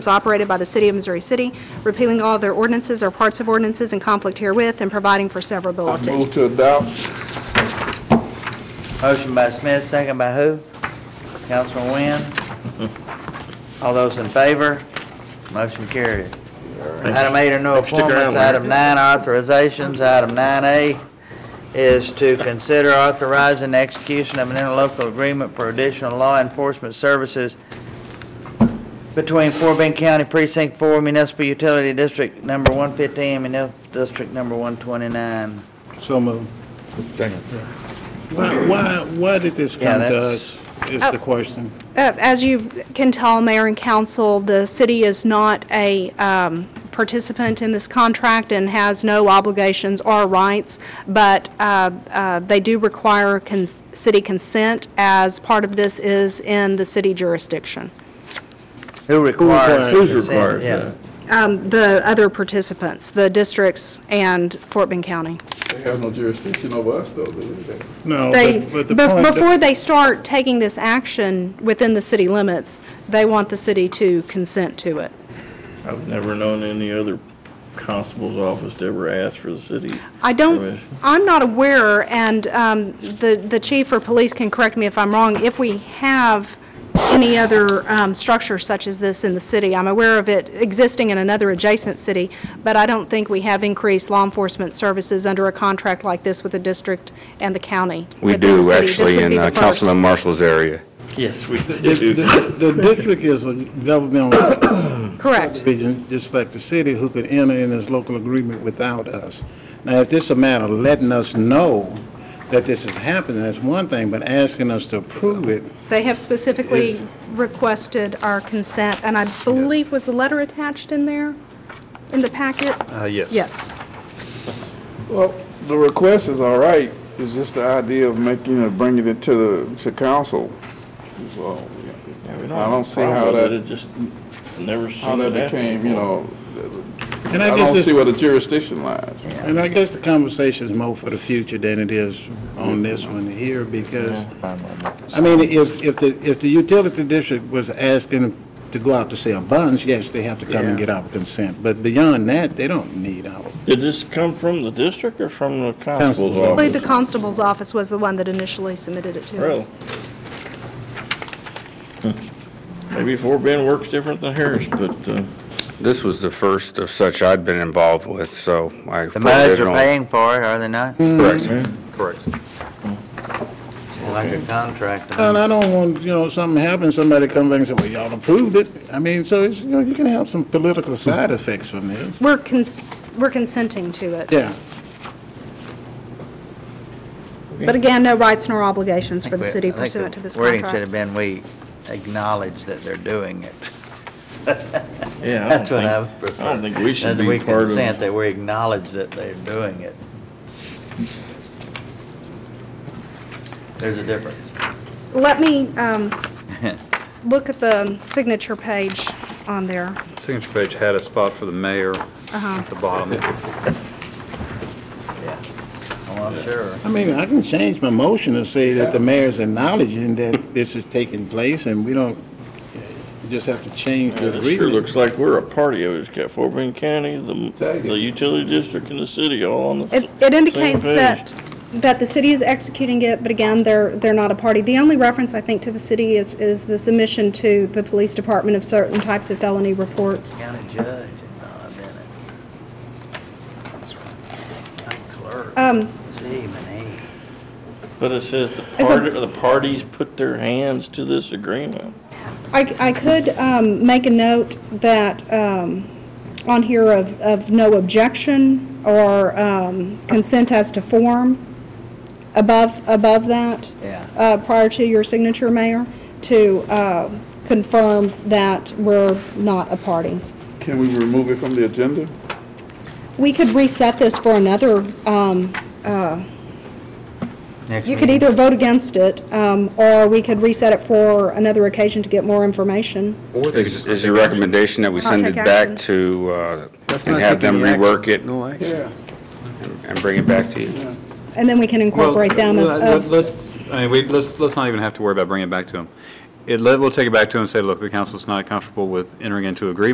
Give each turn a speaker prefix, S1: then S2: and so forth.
S1: is operated by the City of Missouri City, repealing all their ordinances or parts of ordinances in conflict herewith, and providing for
S2: I
S1: severability.
S2: move to adopt.
S3: Motion by Smith, second by who? Councilman Wynn. All those in favor? Motion carried. Item eight are no
S4: Stick around,
S3: appointments.
S4: Larry.
S3: Item nine, authorizations. Item nine A is to consider authorizing the execution of an interlocal agreement for additional law enforcement services between Fort Bend County Precinct Four Municipal Utility District Number one fifteen and Munif- District Number one twenty-nine.
S4: So moved. Why, why, why did this
S3: Yeah,
S4: come to
S3: that's-
S4: us, is
S1: Oh.
S4: the question?
S1: Uh, As you can tell, Mayor and Council, the city is not a um, participant in this contract and has no obligations or rights, but uh, uh, they do require con- city consent, as part of this is in the city jurisdiction,
S3: Who requires?
S4: requires-
S2: Who's
S3: consent?
S2: required?
S3: Yeah.
S1: Um, the other participants, the districts and Fort Bend County.
S2: They have no jurisdiction over us, though, do they?
S4: No,
S1: They,
S4: but, but the
S1: bef-
S4: point.
S1: before they start taking this action within the city limits, they want the city to consent to it.
S5: I've never known any other constable's office to ever ask for the city.
S1: I don't,
S5: permission.
S1: I'm not aware, and um, the the chief or police can correct me if I'm wrong, if we have any other um, structure such as this in the city. I'm aware of it existing in another adjacent city, but I don't think we have increased law enforcement services under a contract like this with the district and the county.
S6: We
S1: within the
S6: do,
S1: city. This
S6: actually,
S1: would be
S6: in
S1: the
S6: uh,
S1: first.
S6: Councilman Marshall's area.
S5: Yes, we
S4: The,
S5: do.
S4: the- the district is a governmental
S1: Correct.
S4: region, just like the city, who could enter in this local agreement without us. Now, if this is a matter of letting us know that this is happening, that's one thing, but asking us to approve it,
S1: They have specifically
S4: Is-
S1: requested our consent, and I believe, was the letter attached in there, in the packet?
S4: Uh, yes.
S1: Yes.
S2: Well, the request is all right, it's just the idea of making, of bringing it to the, to council. So, I don't see how
S5: It
S2: that,
S5: just never seen
S2: how that
S5: it happen
S2: became, you
S5: before.
S2: know,
S4: And
S2: I
S4: I
S2: don't
S4: guess
S2: see
S4: this,
S2: where the jurisdiction lies.
S4: and I guess the conversation is more for the future than it is on this one here, because I mean, if, if the, if the utility district was asking to go out to sell bonds, yes, they have to come and get our consent. But beyond that, they don't need our,
S5: Did this come from the district or from the constable's
S4: Constable's
S1: I believe the
S5: office?
S1: constable's office was the one that initially submitted it to
S5: Really?
S1: us.
S5: Hmm. Maybe Fort Bend works different than Harris, but, uh,
S6: This was the first of such I'd been involved with, so I.
S3: The MUDs are paying for it, are they not?
S6: Correct, correct.
S3: Like a contract.
S4: and I don't want, you know, something happens, somebody come back and say, well, y'all approved it. I mean, so it's, you know, you can have some political side effects from this.
S1: We're cons, we're consenting to it.
S4: Yeah,
S1: But again, no rights nor obligations for the
S3: I think
S1: city
S3: we- I think
S1: pursuant
S3: the
S1: to this
S3: Wording should have
S1: contract.
S3: been, we acknowledge that they're doing it.
S5: yeah, I don't
S3: That's what I would
S5: think,
S3: prefer.
S5: I don't think we
S3: That
S5: should be part
S3: we consent,
S5: of.
S3: that we acknowledge that they're doing it. There's a difference.
S1: Let me um, look at the signature page on there.
S7: Signature page had a spot for the mayor at the bottom.
S3: Yeah. Oh, I'm sure.
S4: I mean, I can change my motion and say that the mayor's acknowledging that this is taking place and we don't, you just have to change the
S5: It sure
S4: agreement.
S5: looks like we're a party of it. It's got Fort Bend County, the,
S2: Tag it.
S5: the utility district and the city all on the.
S1: It,
S5: s-
S1: it
S5: same
S1: indicates
S5: page.
S1: that, that the city is executing it, but again, they're, they're not a party. The only reference, I think, to the city is, is the submission to the police department of certain types of felony reports.
S3: County judge uh, involved in it. County Clerk.
S1: Um,
S3: Gee, man,
S5: But it says the
S1: It's a-
S5: part, the parties put their hands to this agreement.
S1: I, I could um, make a note that, um, on here of, of no objection or um, consent as to form above, above that.
S3: Yeah.
S1: uh, Prior to your signature, Mayor, to uh, confirm that we're not a party.
S2: Can we remove it from the agenda?
S1: We could reset this for another, um, uh,
S3: Next
S1: you could
S3: meeting.
S1: either vote against it, um, or we could reset it for another occasion to get more information.
S6: Is is your recommendation that we send
S1: take
S6: it back
S1: action.
S6: to, uh, and have them rework it and bring it back to you?
S1: And then we can incorporate them of- of
S7: Let's, I mean, we, let's, let's not even have to worry about bringing it back to them. It, let- we'll take it back to them and say, look, the council's not comfortable with entering into agreement